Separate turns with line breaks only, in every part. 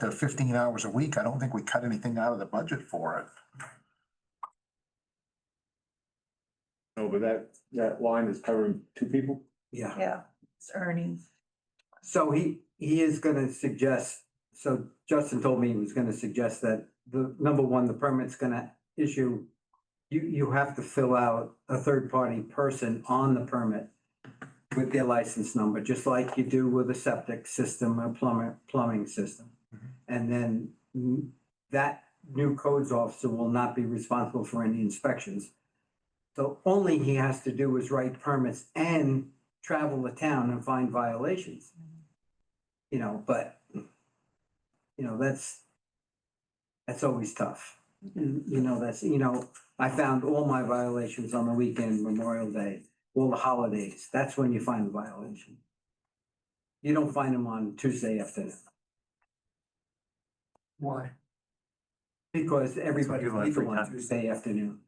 the uh, fifteen hours a week, I don't think we cut anything out of the budget for it.
No, but that, that line is covering two people?
Yeah,
Yeah, it's earnings.
so he, he is gonna suggest, so Justin told me he was gonna suggest that the, number one, the permit's gonna issue. You, you have to fill out a third-party person on the permit with their license number, just like you do with a septic system or plumber, plumbing system. And then mm, that new codes officer will not be responsible for any inspections. So only he has to do is write permits and travel the town and find violations. You know, but, you know, that's, that's always tough. You you know, that's, you know, I found all my violations on the weekend, Memorial Day, all the holidays. That's when you find the violation. You don't find them on Tuesday afternoon
Why?
because everybody's
People have free
legal on
time.
Tuesday afternoon.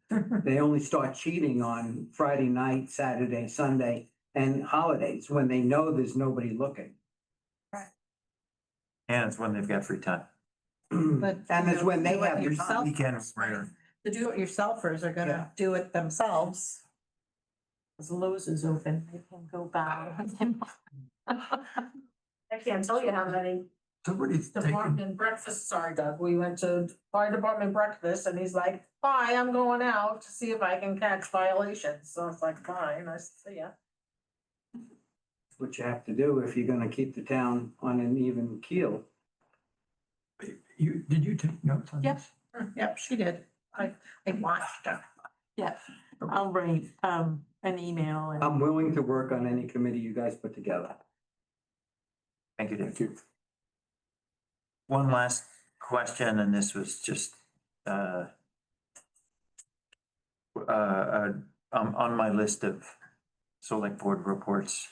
They only start cheating on Friday night, Saturday, Sunday, and holidays when they know there's nobody looking.
And it's when they've got free time.
But.
And it's Hmm. when they have the
Yourself.
time.
Weekend is rare.
The do-it-yourselfers are gonna do it themselves. As Lowe's is open, they can go buy.
I can't tell you how many
Somebody's taking,
department breakfasts are, Doug. We went to fire department breakfast and he's like, bye, I'm going out to see if I can catch violations. So I was like, fine, I said, yeah.
What you have to do if you're gonna keep the town on an even keel.
you, did you take notes on
Yep.
this?
Yep, she did. I, I watched her. Yes, I'll write, um, an email and.
I'm willing to work on any committee you guys put together.
Thank you, Dave. One last question, and this was just, uh, uh, uh, um, on my list of select board reports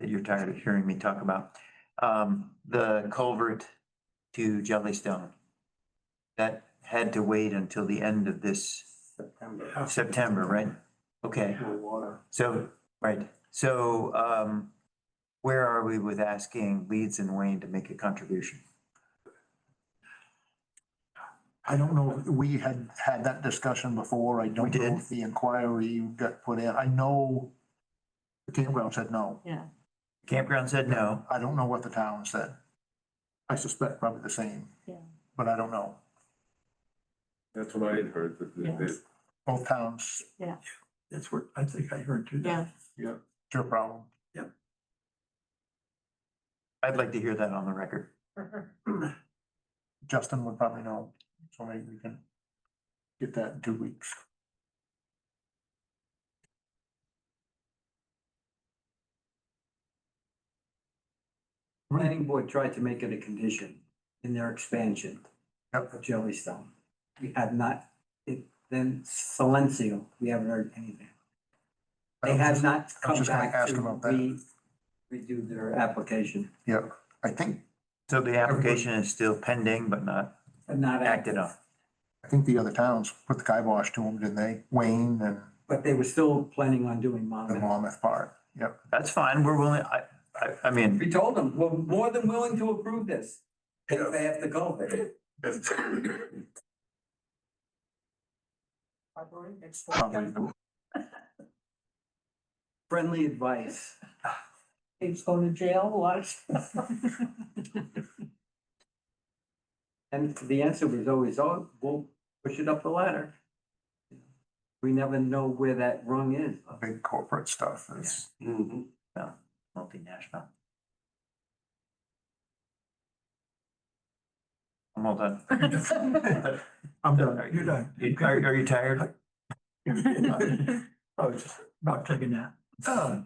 that you're tired of hearing me talk about. Um, the culvert to Jellystone. That had to wait until the end of this
September.
September, right? Okay. So, right, so, um, where are we with asking Leeds and Wayne to make a contribution?
I don't know, if we had had that discussion before, I don't
We did.
know if the inquiry got put in, I know the campground said no,
Yeah.
Campground said no,
I don't know what the town said. I suspect probably the same.
Yeah.
But I don't know,
That's what I had heard, that, that- that,
both towns,
That's what I think I heard too.
Yeah,
it's your problem.
I'd like to hear that on the record.
Justin would probably know, so maybe we can get that in two weeks.
Planning board tried to make it a condition in their expansion
Yep.
of Jellystone. We have not, it, then Silencio, we haven't heard anything. They have not
I was
come
just gonna
back
ask
to
about that.
re, redo their application,
Yep, I think,
So the application is still pending, but not
but not acted
acted on.
I think the other towns put the kibosh to them, didn't they? Wayne and
But they were still planning on doing
the
Monmouth.
Monmouth part, yep.
That's fine, we're willing, I, I, I mean,
We told them, we're more than willing to approve this, if they have to go there.
probably the-
Friendly advice.
He's going to jail, watch.
And the answer was always, oh, we'll push it up the ladder. We never know where that rung is.
big corporate stuff is.
Mm-hmm.
multinational. I'm all done.
I'm done. You're done.
Are, are you tired?
I was just about taking that. Uh,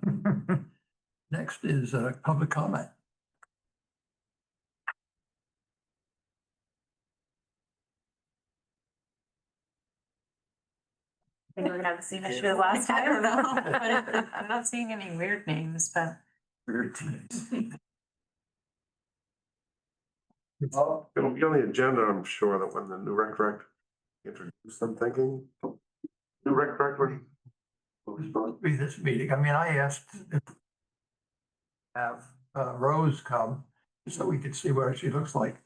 Next is uh, public comment.
think we're gonna have the same issue as last time.
I don't know, but it- I'm not seeing any weird names, but.
It'll be on the agenda, I'm sure, that when the new rec direct introduced, I'm thinking. New rec director.
was supposed to be this meeting. I mean, I asked if have uh, Rose come so we could see what she looks like.